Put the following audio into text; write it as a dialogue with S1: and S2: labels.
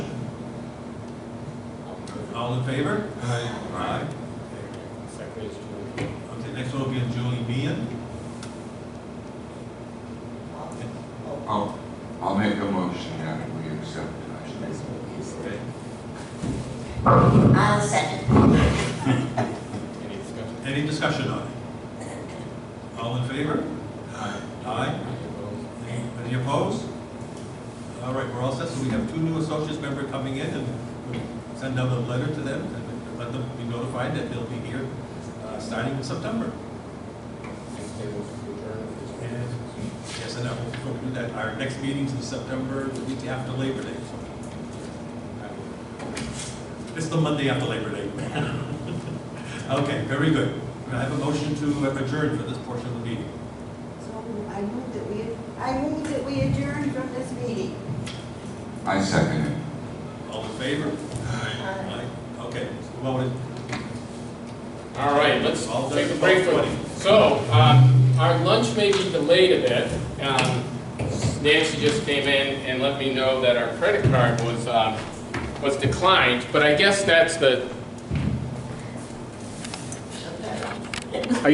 S1: All in favor?
S2: Aye.
S1: Aye.
S3: Second is Julie.
S1: Okay, next one will be Julie Meehan.
S2: I'll, I'll make a motion that we accept tonight's
S1: Okay.
S4: I'll second.
S3: Any discussion?
S1: Any discussion on it? All in favor?
S2: Aye.
S1: Aye.
S3: Any opposed?
S1: Any opposed? All right, we're all set, so we have two new associates member coming in, and we'll send out a letter to them, and let them be notified that they'll be here, uh, starting in September.
S3: Next table to adjourn.
S1: And, yes, and that will, we'll do that, our next meeting's in September, the week after Labor Day, so, it's the Monday after Labor Day. Okay, very good. Can I have a motion to adjourn for this portion of the meeting?
S5: So I move that we, I move that we adjourn from this meeting.
S2: I second it.
S1: All in favor? Aye. Okay, so, well, we-
S3: All right, let's
S1: All done.
S3: take a break for So, um, our lunch may be delayed a bit. Um, Nancy just came in and let me know that our credit card was, um, was declined, but I guess that's the,